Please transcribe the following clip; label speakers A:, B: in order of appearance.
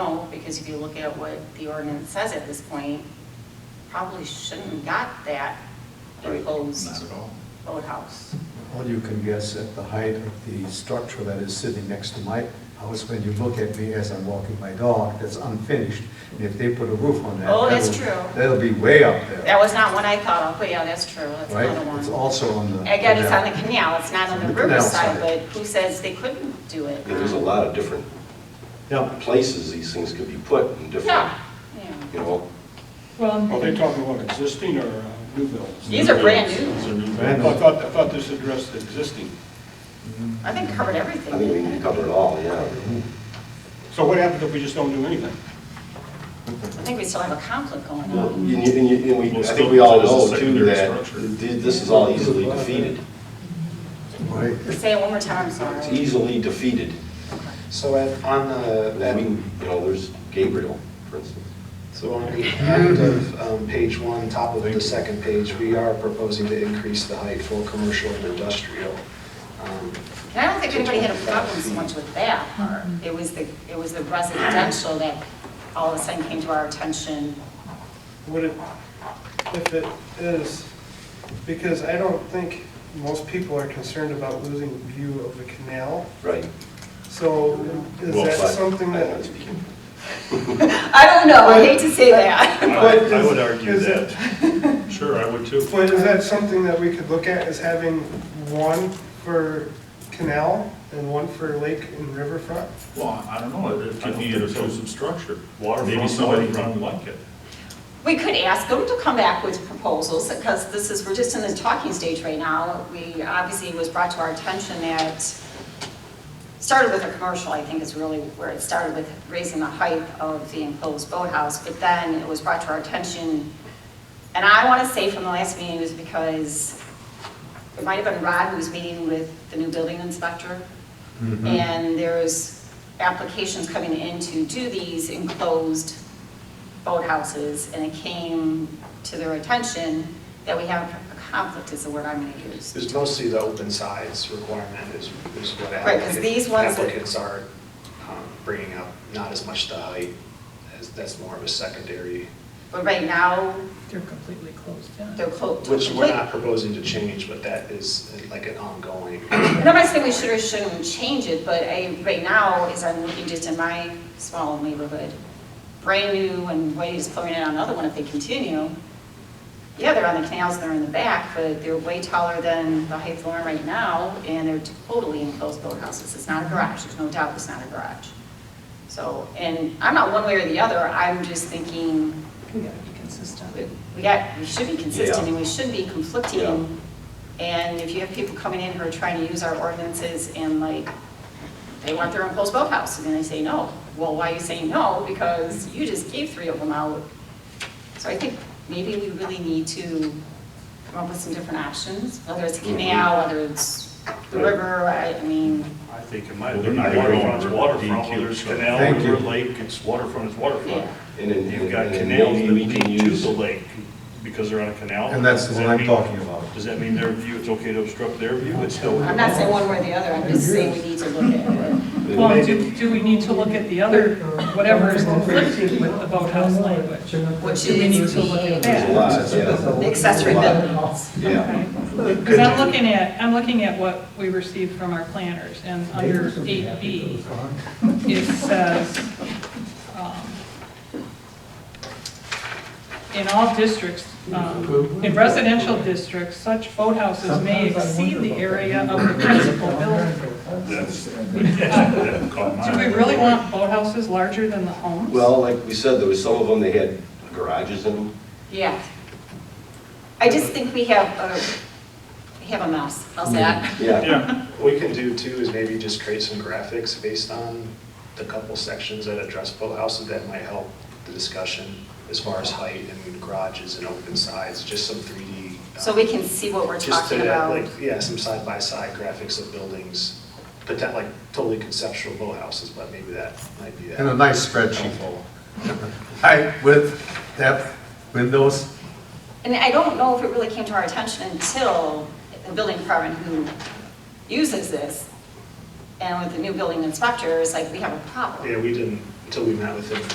A: because if you look at what the ordinance says at this point, probably shouldn't have got that
B: Right.
A: enclosed
C: Not at all.
A: boathouse.
D: All you can guess at the height of the structure that is sitting next to my house, when you look at me as I'm walking my dog, that's unfinished. And if they put a roof on that.
A: Oh, that's
D: that'll-
A: true.
D: That'll be way up there.
A: That was not one I thought of, but yeah, that's true, that's
D: Right?
A: another one.
D: It's also on the.
A: Again, it's on the canal, it's not on the
D: The canal
A: riverside,
D: side.
A: but who says they couldn't do it?
B: Yeah, There's a lot of different
D: Yeah.
B: places these things could be put in different,
A: Yeah, yeah.
B: you know,
E: Are they
F: Well,
E: talking about existing or uh, new builds?
A: These are brand new.
C: These are new.
E: I
D: Brand new.
E: thought, I thought this addressed the existing.
A: I think covered everything.
B: I think we need to cover it all, yeah.
E: So what happens if we just don't do anything?
A: I think we still have a conflict going
B: Well,
A: on.
B: And you- and you- and we, I think we all know too that th- this is all easily defeated.
D: Right.
A: Say it one more time, I'm sorry.
B: It's easily defeated.
F: so at, on the,
B: I
F: that,
B: mean, you know, there's Gabriel, for instance.
F: so on the end of um, page one, top of the second page, we are proposing to increase the height for commercial and industrial. Um,
A: And I don't think anybody had a problem so much with that part. It was the, it was the residential that all of a sudden came to our attention.
G: Would it, if it is, because I don't think most people are concerned about losing view of the canal.
B: Right.
G: So is
C: Well,
G: that
C: but-
G: something
B: I know,
G: that?
B: speaking.
A: I don't know, I hate to say that.
G: But
C: I would
G: is-
C: argue
G: is it-
C: that, sure, I would too.
G: But is that something that we could look at as having one for canal and one for lake and riverfront?
C: Well, I don't know, it could be an intrusive structure. Maybe
H: Waterfront,
C: somebody
H: waterfront.
C: didn't like it.
A: We could ask them to come back with proposals, because this is, we're just in the talking stage right now. We, obviously, it was brought to our attention that, started with a commercial, I think is really where it started with raising the height of the enclosed boathouse, but then it was brought to our attention, and I want to say from the last meeting was because it might have been Rod who was meeting with the new building inspector, and there's applications coming in to do these enclosed boathouses, and it came to their attention that we have a conflict is the word I'm gonna use.
F: It's mostly the open sides requirement is, is what
A: Right, 'cause these
F: applicant-
A: ones that-
F: applicants are um, bringing up, not as much the height, as, that's more of a secondary,
A: But right now,
I: They're completely closed down.
A: they're closed.
F: which we're not proposing to change, but that is uh, like an ongoing.
A: And I'm not saying we should or shouldn't change it, but I, right now, as I'm looking just in my small neighborhood, brand new and way is pulling in on another one if they continue. Yeah, they're on the canals, they're in the back, but they're way taller than the height of the lawn right now, and they're totally enclosed boathouses. It's not a garage, there's no doubt it's not a garage. So, and I'm not one way or the other, I'm just thinking,
I: We gotta be consistent.
A: we- we got, we should be consistent
B: Yeah.
A: and we shouldn't be conflicting. And if you have people coming in who are trying to use our ordinances and like, they want their enclosed boathouse, and then they say no. Well, why are you saying no? Because you just gave three of them out. So I think maybe we really need to come up with some different options, whether it's a canal, whether it's the
B: Right.
A: river, I, I mean,
H: I think it
C: Well,
H: might, have
C: they're
H: been
C: not going
H: waterfront, it's
C: over
H: waterfront,
C: DQ,
H: whether it's
C: so-
H: canal,
D: Thank
H: river,
D: you.
H: lake, it's waterfront, it's waterfront.
A: Yeah.
B: And then-
H: You've got
B: and then
H: canals that
B: maybe we
H: lead
B: can
H: to
B: use-
H: the lake, because they're on a canal.
D: And that's the
H: Does
D: one
H: that
D: I'm
H: mean-
D: talking about.
H: Does that mean their view, it's okay to obstruct their view? It's still.
A: I'm not saying one way or the other, I'm just saying we need to look at it.
I: Well, do, do we need to look at the other, whatever is conflicting with the boathouse language?
A: Which
I: Do we need
A: is
I: to look at
A: the-
B: There's a
I: that?
B: lot, yeah.
A: The accessory buildings.
B: Yeah.
I: Because I'm looking at, I'm looking at what we received from our planners, and under 8B, it says, um, in all districts, um, in residential districts, such boathouses may exceed the area of the principal building. Uh,
H: That's, that caught my
I: Do we
H: eye.
I: really want boathouses larger than the homes?
B: Well, like we said, there was some of them, they had garages in them.
A: Yeah. I just think we have a, we have a mess, I'll say that.
F: Mm-hmm.
B: Yeah.
H: Yeah,
F: What we can do too is maybe just create some graphics based on the couple sections that address boathouses that might help the discussion as far as height and garages and open sides, just some 3D. uh,
A: So we can see what we're
F: Just to
A: talking
F: have
A: about.
F: like, yeah, some side-by-side graphics of buildings, but that like totally conceptual boathouses, but maybe that might be that.
D: And a nice spreadsheet. Height, width, depth, windows.
A: And I don't know if it really came to our attention until the building department who uses this, and with the new building inspector, it's like, we have a problem.
F: Yeah, we didn't, until we met with him